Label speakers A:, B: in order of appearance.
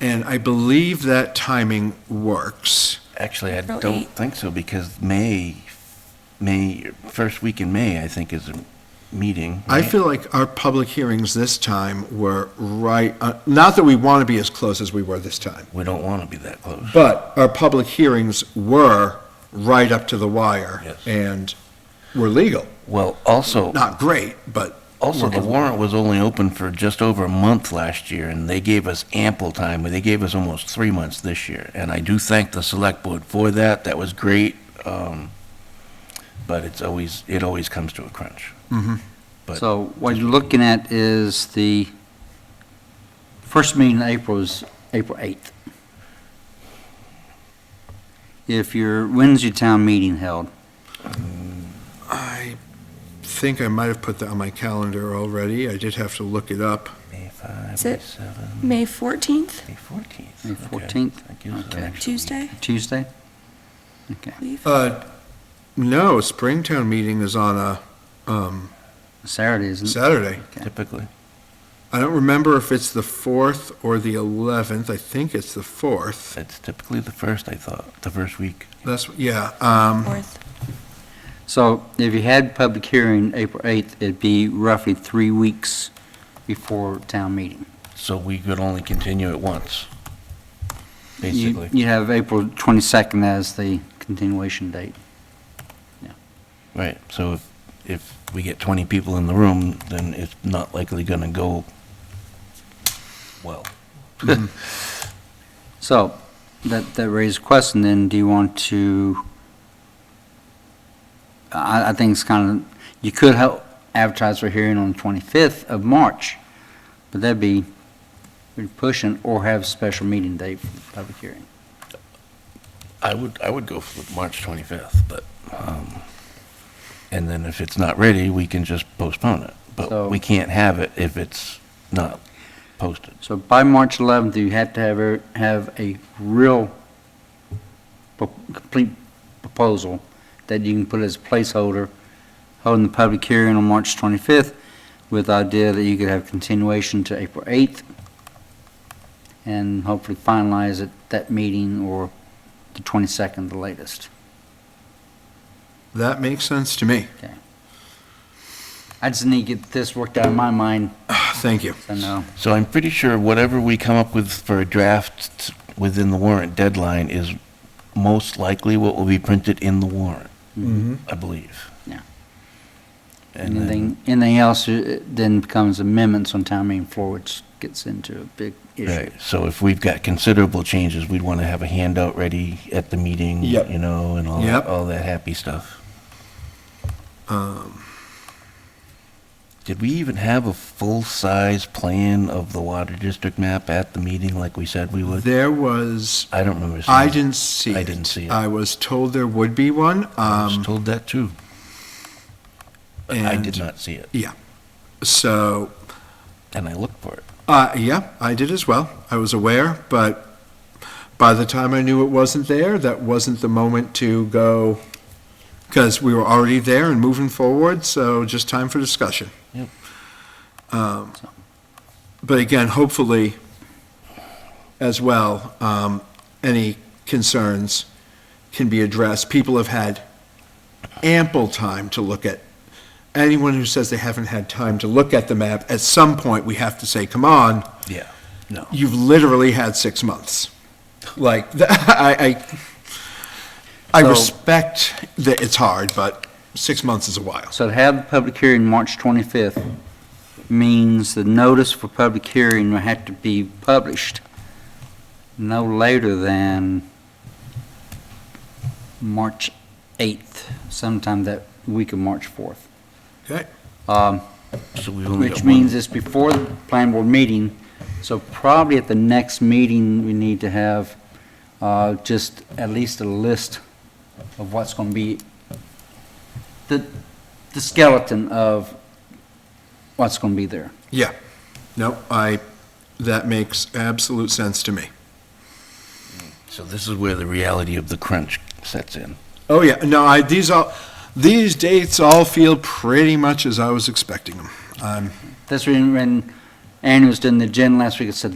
A: And I believe that timing works.
B: Actually, I
C: April
B: don't
C: 8th.
B: think so, because May, May, first week in May, I think, is a meeting.
A: I
B: right?
A: feel like our public hearings this time were right, uh, not that we want to be as close as we were this time,
B: We don't want to be that close.
A: but our public hearings were right up to the wire.
B: Yes.
A: And were legal.
B: Well, also,
A: Not great, but
B: also, the
A: workable.
B: warrant was only open for just over a month last year, and they gave us ample time. They gave us almost three months this year, and I do thank the select board for that. That was great. um, But it's always, it always comes to a crunch. But-
D: So what you're looking at is the first meeting in April is April 8th. If your, when's your town meeting held?
A: I think I might have put that on my calendar already. I did have to look it up.
B: May 5,
C: Is
B: May
C: it
B: 7,
C: May 14th,
B: May 14th.
D: May
B: Okay.
D: 14th?
B: That gives us an
D: Okay.
B: extra week.
C: Tuesday,
D: Tuesday? Okay,
C: I believe.
A: Uh, no, Springtown meeting is on a, um,
D: Saturday,
B: Mm-hmm.
D: isn't it?
A: Saturday.
D: Okay.
B: Typically.
A: I don't remember if it's the fourth or the eleventh. I think it's the fourth.
B: It's typically the first, I thought, the first week.
A: That's, yeah, um,
C: Fourth.
D: So if you had public hearing April 8th, it'd be roughly three weeks before town meeting.
B: So we could only continue it once,
D: You-
B: basically.
D: You have April 22nd as the continuation date.
B: Right, so if, if we get 20 people in the room, then it's not likely going to go well.
D: So, that, that raises a question then, do you want to, I, I think it's kind of, you could help advertise for hearing on the 25th of March, but that'd be you're pushing, or have a special meeting date for the public hearing.
B: I would, I would go for March 25th, but, um, and then if it's not ready, we can just postpone it. But
D: So-
B: we can't have it if it's not posted.
D: So by March 11th, you have to have, a- have a real pro- complete proposal that you can put as placeholder, holding the public hearing on March 25th with the idea that you could have continuation to April 8th and hopefully finalize at that meeting or the 22nd, the latest.
A: that makes sense to me.
D: I just need to get this worked out in my mind,
A: Thank you.
D: so no.
B: So I'm pretty sure whatever we come up with for a draft within the warrant deadline is most likely what will be printed in the warrant, I believe.
D: Yeah.
B: And then-
D: Anything, anything else uh, then becomes amendments on town meeting floor, which gets into a big issue.
B: right, so if we've got considerable changes, we'd want to have a handout ready at the meeting,
A: Yep.
B: you know, and all,
A: Yep.
B: that- all that happy stuff.
A: Um.
B: Did we even have a full-size plan of the water district map at the meeting like we said we would?
A: There was,
B: I don't remember. seeing
A: I
B: it.
A: didn't see it.
B: Mm-hmm. I didn't see it.
A: I was told there would be one,
B: I was
A: um,
B: told that too. But I did
A: and-
B: not see it,
A: so,
B: and I looked for it.
A: uh, yeah, I did as well. I was aware, but by the time I knew it wasn't there, that wasn't the moment to go, because we were already there and moving forward, so just time for discussion.
B: Yep.
A: Um, But again, hopefully, as well, um, any concerns can be addressed. People have had ample time to look at, anyone who says they haven't had time to look at the map, at some point, we have to say, come on,
B: Yeah, no.
A: you've literally had six months. Like, th- I, I, I
D: So-
A: respect that it's hard, but six months is a while.
D: So to have the public hearing March 25th means the notice for public hearing will have to be published no later than March 8th, sometime that week of March 4th.
A: Okay.
D: Um,
B: So we've only got
D: Which
B: one.
D: means it's before the planning board meeting, so probably at the next meeting, we need to have uh, just at least a list of what's going to be, the, the skeleton of what's going to be there.
A: Yeah. No, I, that makes absolute sense to me.
B: So this is where the reality of the crunch sets in.
A: Oh, yeah. No, I, these all, these dates all feel pretty much as I was expecting them. Um,
D: That's when, when Annie was doing the gin last week, it said